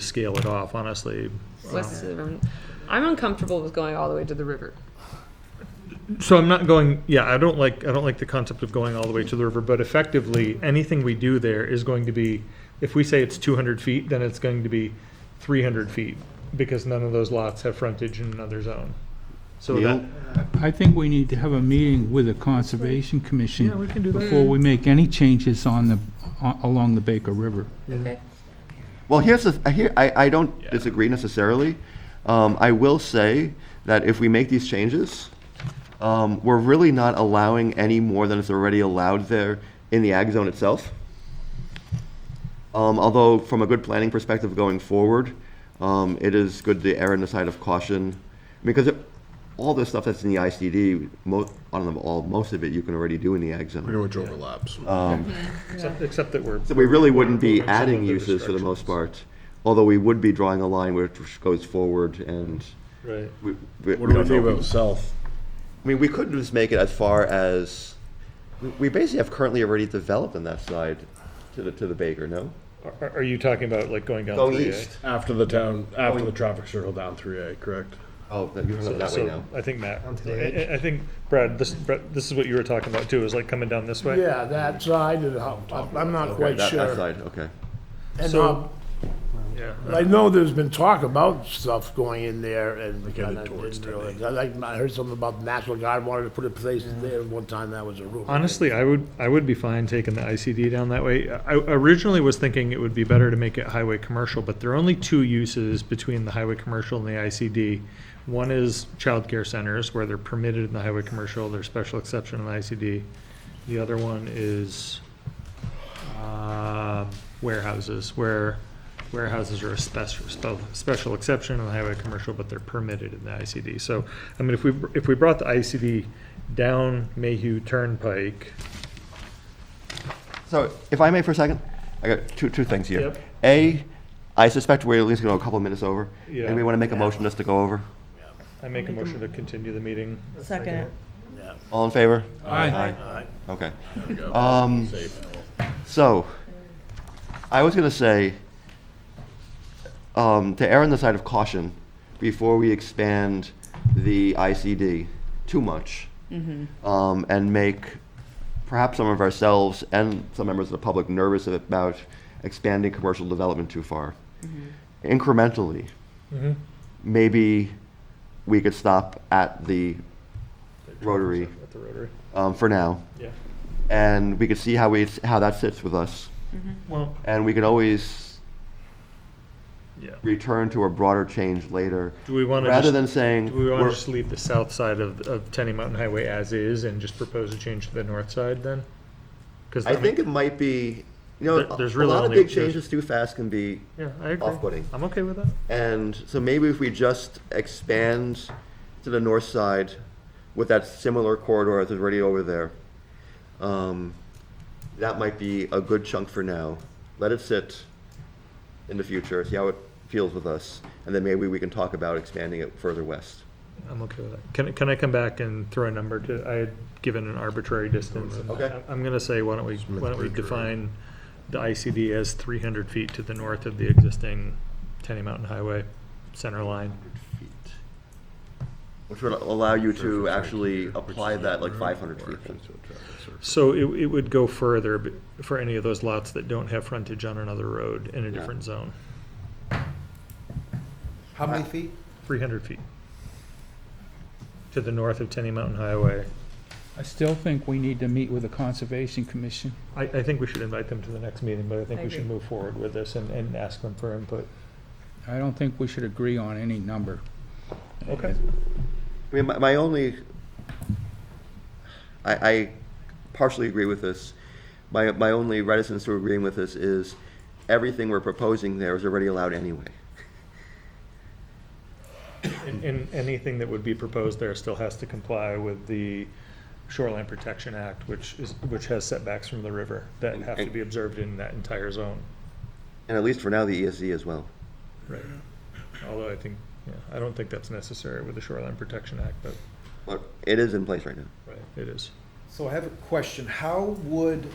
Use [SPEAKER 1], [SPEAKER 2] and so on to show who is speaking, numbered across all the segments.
[SPEAKER 1] scale it off, honestly.
[SPEAKER 2] west of the river. I'm uncomfortable with going all the way to the river.
[SPEAKER 1] So I'm not going, yeah, I don't like, I don't like the concept of going all the way to the river, but effectively, anything we do there is going to be, if we say it's two hundred feet, then it's going to be three hundred feet, because none of those lots have frontage in another zone. So that,
[SPEAKER 3] I think we need to have a meeting with the Conservation
[SPEAKER 1] yeah, we
[SPEAKER 3] Commission
[SPEAKER 1] can do that.
[SPEAKER 3] before we make any changes on the, a- along the Baker River.
[SPEAKER 4] Well, here's the, th- here, I, I don't disagree necessarily. Um, I will say that if we make these changes, um, we're really not allowing any more than is already allowed there in the ag zone itself. Um, although, from a good planning perspective going forward, um, it is good to err on the side of caution, because it- all the stuff that's in the ICD, most, I don't know, all, most of it you can already do in the ag zone.
[SPEAKER 5] I know it overlaps.
[SPEAKER 1] Except- Except that we're.
[SPEAKER 4] So we really wouldn't be
[SPEAKER 1] Some of
[SPEAKER 4] adding
[SPEAKER 1] the
[SPEAKER 4] uses for the most part, although we would be drawing a line which goes forward and
[SPEAKER 1] Right.
[SPEAKER 4] we. we-
[SPEAKER 5] What do we
[SPEAKER 4] don't
[SPEAKER 5] think
[SPEAKER 4] know.
[SPEAKER 5] about self?
[SPEAKER 4] I mean, we could just make it as far as, we- we basically have currently already developed on that side to the, to the Baker, no?
[SPEAKER 1] Are, are you talking about like going down?
[SPEAKER 4] Going
[SPEAKER 1] 3A?
[SPEAKER 4] east.
[SPEAKER 5] After the town, after the traffic circle down three A, correct?
[SPEAKER 4] Oh, that- you're
[SPEAKER 1] So-
[SPEAKER 4] talking that way
[SPEAKER 1] so
[SPEAKER 4] now.
[SPEAKER 1] I think Matt, I, I- I think Brad, this, Brad, this is what you were talking about too, is like coming down this way?
[SPEAKER 6] Yeah, that side of the house, I- I'm not
[SPEAKER 4] Okay,
[SPEAKER 6] quite
[SPEAKER 4] that- That
[SPEAKER 6] sure.
[SPEAKER 4] side, okay.
[SPEAKER 6] And,
[SPEAKER 1] So-
[SPEAKER 6] um, I know there's been talk about stuff going in there and
[SPEAKER 5] get it
[SPEAKER 6] and I
[SPEAKER 5] towards
[SPEAKER 6] didn't realize. I like, I heard something about the National Guard wanted to put a place in there one time, that was a rumor.
[SPEAKER 1] Honestly, I would, I would be fine taking the ICD down that way. I originally was thinking it would be better to make it highway commercial, but there are only two uses between the highway commercial and the ICD. One is childcare centers where they're permitted in the highway commercial, there's special exception in the ICD. The other one is, uh, warehouses, where warehouses are a special, special exception in the highway commercial, but they're permitted in the ICD. So, I mean, if we, if we brought the ICD down Mayhew Turnpike,
[SPEAKER 4] So if I may for a second, I got two, two things here.
[SPEAKER 1] Yep.
[SPEAKER 4] A, I suspect we're at least gonna go a couple of minutes over.
[SPEAKER 1] Yeah.
[SPEAKER 4] Anybody wanna make a motion just to go over?
[SPEAKER 1] I make a motion to continue the meeting.
[SPEAKER 7] Second.
[SPEAKER 4] All in favor?
[SPEAKER 3] Aye.
[SPEAKER 4] Okay. Um, so, I was gonna say, um, to err on the side of caution, before we expand the ICD too much, um, and make perhaps some of ourselves and some members of the public nervous about expanding commercial development too far. Incrementally,
[SPEAKER 1] Mm-hmm.
[SPEAKER 4] maybe we could stop at the Rotary
[SPEAKER 1] At the Rotary,
[SPEAKER 4] um, for now
[SPEAKER 1] yeah.
[SPEAKER 4] and we could see how we how that sits with us,
[SPEAKER 1] Well,
[SPEAKER 4] and we could always
[SPEAKER 1] yeah.
[SPEAKER 4] return to a broader change later,
[SPEAKER 1] Do we want to
[SPEAKER 4] rather
[SPEAKER 1] just,
[SPEAKER 4] than saying
[SPEAKER 1] do we want to
[SPEAKER 4] we're-
[SPEAKER 1] just leave the south side of, of Tenny Mountain Highway as is and just propose a change to the north side then? Because
[SPEAKER 4] I think it might be. You know,
[SPEAKER 1] There- there's
[SPEAKER 4] a
[SPEAKER 1] really
[SPEAKER 4] lot of
[SPEAKER 1] only-
[SPEAKER 4] big changes too fast can be,
[SPEAKER 1] Yeah, I agree.
[SPEAKER 4] Off-putting.
[SPEAKER 1] I'm okay with that.
[SPEAKER 4] and so maybe if we just expand to the north side with that similar corridor that's already over there, um, that might be a good chunk for now. Let it sit in the future, see how it feels with us, and then maybe we can talk about expanding it further west.
[SPEAKER 1] I'm okay with that. Can, I- can I come back and throw a number to, I had given an arbitrary distance. and
[SPEAKER 4] Okay.
[SPEAKER 1] I- I'm gonna say, why don't we, why don't we
[SPEAKER 5] Creek or-
[SPEAKER 1] define the ICD as three hundred feet to the north of the existing Tenny Mountain Highway center line?
[SPEAKER 4] feet. Which would allow you to actually apply that like five hundred feet. thing.
[SPEAKER 1] So it, it would go further b- for any of those lots that don't have frontage on another road in a
[SPEAKER 4] Yeah.
[SPEAKER 1] different zone,
[SPEAKER 7] How many feet?
[SPEAKER 1] three hundred feet. To the north of Tenny Mountain Highway.
[SPEAKER 3] I still think we need to meet with the Conservation Commission.
[SPEAKER 1] I, I think we should invite them to the next meeting, but I think
[SPEAKER 2] I
[SPEAKER 1] we should
[SPEAKER 2] agree.
[SPEAKER 1] move forward with this and, and ask them for input.
[SPEAKER 3] I don't think we should agree on any number.
[SPEAKER 1] Okay.
[SPEAKER 4] I mean, my, my only, I, I partially agree with this. My, my only reticence to agreeing with this is everything we're proposing there is already allowed anyway.
[SPEAKER 1] And, and anything that would be proposed there still has to comply with the Shoreline Protection Act, which is, which has setbacks from the river that have to be observed in that entire zone.
[SPEAKER 4] And at least for now, the ESZ as well.
[SPEAKER 1] Right. Although I think, yeah, I don't think that's necessary with the Shoreline Protection Act, but
[SPEAKER 4] But it is in place right now.
[SPEAKER 1] it is.
[SPEAKER 7] So I have a question. How would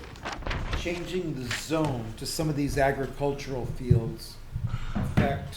[SPEAKER 7] changing the zone to some of these agricultural fields affect